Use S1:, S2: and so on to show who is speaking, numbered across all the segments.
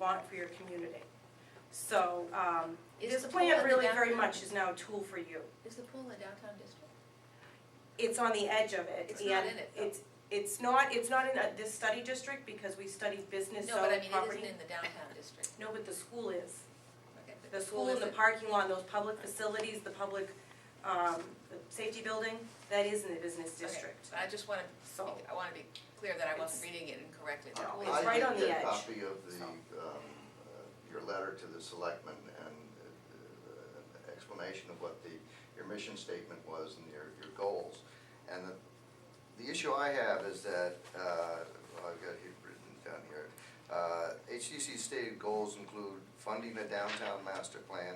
S1: want for your community. So, um,
S2: Is
S1: this
S2: the
S1: plan
S2: pool
S1: really
S2: in
S1: very
S2: downtown?
S1: much is now a tool for you.
S2: Is the pool in the downtown district?
S1: It's on the edge of it.
S2: It's not
S1: and
S2: in it, though.
S1: It's, it's not, it's not in uh, this study district because we studied business zone
S2: No, but I
S1: property.
S2: mean, it isn't in the downtown district.
S1: No, but the school is.
S2: Okay, but
S1: The school and the
S2: isn't-
S1: parking lot, and those public facilities, the public, um, the safety building, that is in the business
S2: okay,
S1: district.
S2: but I just want to,
S1: So-
S2: I want to be clear that I
S1: It's-
S2: wasn't reading it incorrectly. The
S1: No,
S3: Oh,
S2: pool
S1: it's
S2: is-
S1: right on the edge.
S4: I did get a copy of the,
S1: So.
S4: um, uh, your letter to the selectmen and uh, uh, explanation of what the, your mission statement was and your, your goals. And the, the issue I have is that, uh, I've got it written down here. Uh, HCC stated goals include funding a downtown master plan,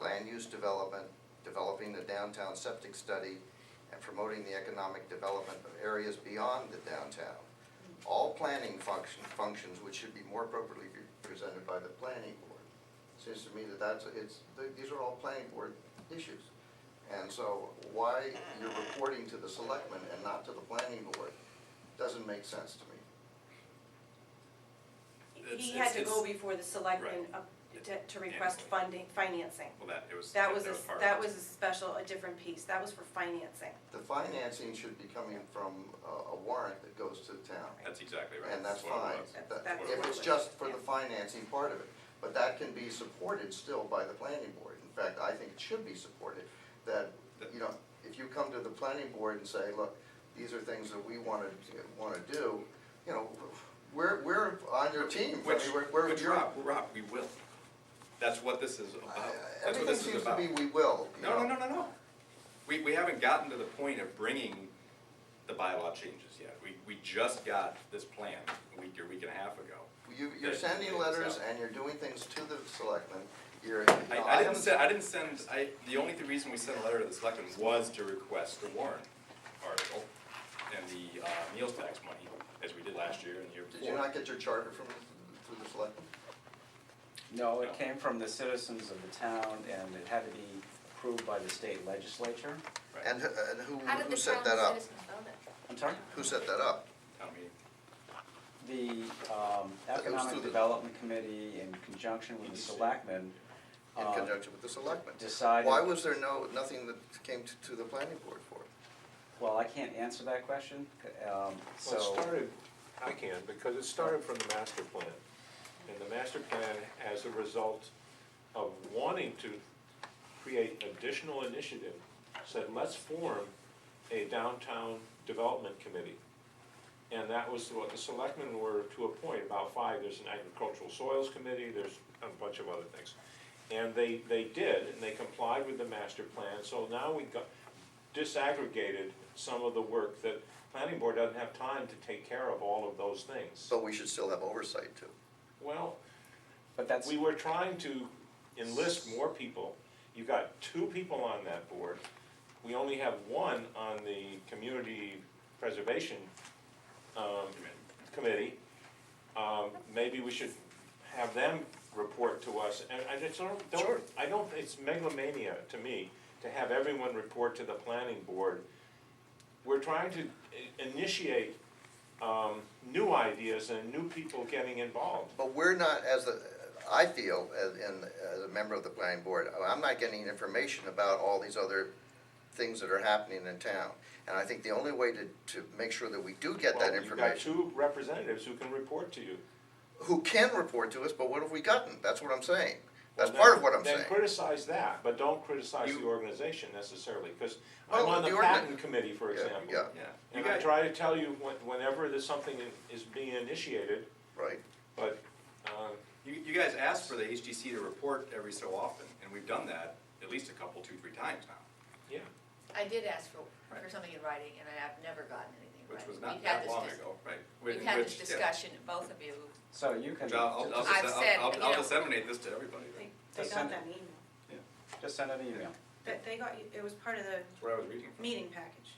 S4: land use development, developing a downtown septic study, and promoting the economic development of areas beyond the downtown. All planning function, functions which should be more appropriately presented by the planning board. Seems to me that that's, it's, th- these are all planning board issues. And so why you're reporting to the selectmen and not to the planning board doesn't make sense to me.
S1: He
S3: It's-
S1: had to
S3: it's-
S1: go before the selectmen up to, to request funding, financing.
S3: Well, that, it was.
S1: That was, a-
S3: part of
S1: that
S3: it.
S1: was a special, a different piece, that was for financing.
S4: The financing should be coming from a a warrant that goes to the town.
S3: That's exactly right.
S4: And that's
S3: what it
S4: fine,
S3: was.
S1: That's-
S4: That-
S1: that's
S4: if
S1: what
S4: it's
S1: it
S4: just
S1: was,
S4: for the
S1: yeah.
S4: financing part of it. But that can be supported still by the planning board. In fact, I think it should be supported, that, you know, if you come to the planning board and say, look, these are things that we wanna, wanna do, you know, we're, we're on your team, I
S3: Which,
S4: mean, we're, we're,
S3: which,
S4: you're.
S3: Rob, Rob, we will. That's what this is about.
S4: I- I-
S3: That's what
S4: Everything
S3: this is
S4: seems to
S3: about.
S4: be, we will, you
S3: No,
S4: know.
S3: no, no, no, no. We, we haven't gotten to the point of bringing the bylaw changes yet. We, we just got this plan a week or week and a half ago.
S4: You, you're
S3: That-
S4: sending letters
S3: so-
S4: and you're doing things to the selectmen, you're, you
S3: I,
S4: know,
S3: I didn't
S4: haven't-
S3: send, I didn't send, I, the only th- reason we sent a letter to the selectmen was to request the warrant article and the, uh, meals tax money, as we did last year and the year before.
S4: Did you not get your charter from, through the selectmen?
S5: No,
S3: No.
S5: it came from the citizens of the town, and it had to be approved by the state legislature.
S3: Right.
S4: And, who- and who,
S2: How did
S4: who
S2: the
S4: set
S2: town
S4: that up?
S2: citizens know that?
S5: I'm sorry?
S4: Who set that up?
S3: Town meeting.
S5: The um,
S4: through
S5: Economic
S4: the-
S5: Development Committee, in conjunction with the selectmen,
S4: In
S5: uh,
S4: conjunction with the selectmen?
S5: decided...
S4: Why was there no, nothing that came to, to the planning board for it?
S5: Well, I can't answer that question, um, so...
S6: Well, it started, I can, because it started from the master plan. And the master plan, as a result of wanting to create additional initiative, said, let's form a downtown development committee. And that was what the selectmen were to appoint, about five, there's an agricultural soils committee, there's a bunch of other things. And they, they did, and they complied with the master plan, so now we got, disaggregated some of the work that planning board doesn't have time to take care of all of those things.
S4: So we should still have oversight too.
S6: Well,
S5: But that's,
S6: we were trying to enlist more people. You got two people on that board. We only have one on the community preservation, um, committee. Um, maybe we should have them report to us, and I just don't,
S4: Sure.
S6: don't, I don't, it's megalomania to me, to have everyone report to the planning board. We're trying to i- initiate, um, new ideas and new people getting involved.
S4: But we're not, as a, I feel, as, in, as a member of the planning board, I'm not getting information about all these other things that are happening in town. And I think the only way to, to make sure that we do get that
S6: Well, you've got
S4: information,
S6: two representatives who can report to you.
S4: who can report to us, but what have we gotten? That's what I'm saying. That's
S6: Well,
S4: part
S6: then-
S4: of what I'm
S6: Then
S4: saying.
S6: criticize that, but don't criticize the
S3: You-
S6: organization necessarily, because
S4: Well,
S6: I'm on
S4: Oh, the
S6: the
S4: organ-
S6: patent committee, for
S4: Yeah,
S6: example.
S4: yeah.
S3: Yeah. You
S6: And I
S3: guys,
S6: try to tell you when- whenever there's something in- is being initiated,
S4: Right.
S6: but, um,
S3: you, you guys ask for the HGC to report every so often, and we've done that at least a couple, two, three times now.
S6: yeah.
S2: I did ask for, for
S3: Right.
S2: something in writing, and I have never gotten anything in
S3: Which
S2: writing.
S3: was
S2: We've
S3: not
S2: had
S3: that
S2: this
S3: long
S2: dis-
S3: ago, right? Which-
S2: We've had this
S3: which, yeah.
S2: discussion, both of you,
S5: so you can
S3: Which I'll, I'll,
S5: just
S2: I've
S3: dis- I'll-
S2: said,
S3: I'll- I'll
S2: you know-
S3: disseminate this to everybody,
S1: They,
S3: right?
S1: they
S5: That's
S1: got
S5: some-
S1: that email,
S5: just send an email.
S1: that they got, it was part of the
S3: That's what I was reading from.
S1: meeting package.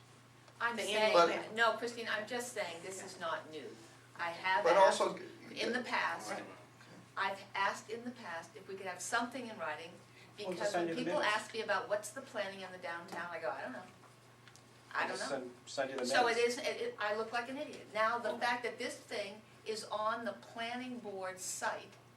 S2: I'm
S1: The
S4: annual
S2: saying,
S1: plan.
S2: no, Christine, I'm just saying, this is not new. I have
S4: But
S2: asked
S4: also.
S2: in the past,
S3: Right.
S2: I've asked in the past if we could have something in writing,
S5: Well, just
S2: because
S5: send
S2: when
S5: you the
S2: people
S5: minutes.
S2: ask me about what's the planning in the downtown, I go, I don't know. I don't
S5: Just
S2: know.
S5: send- Send you the minutes.
S2: So it is, it, it- I look like an idiot. Now, the fact that this thing is on the planning board site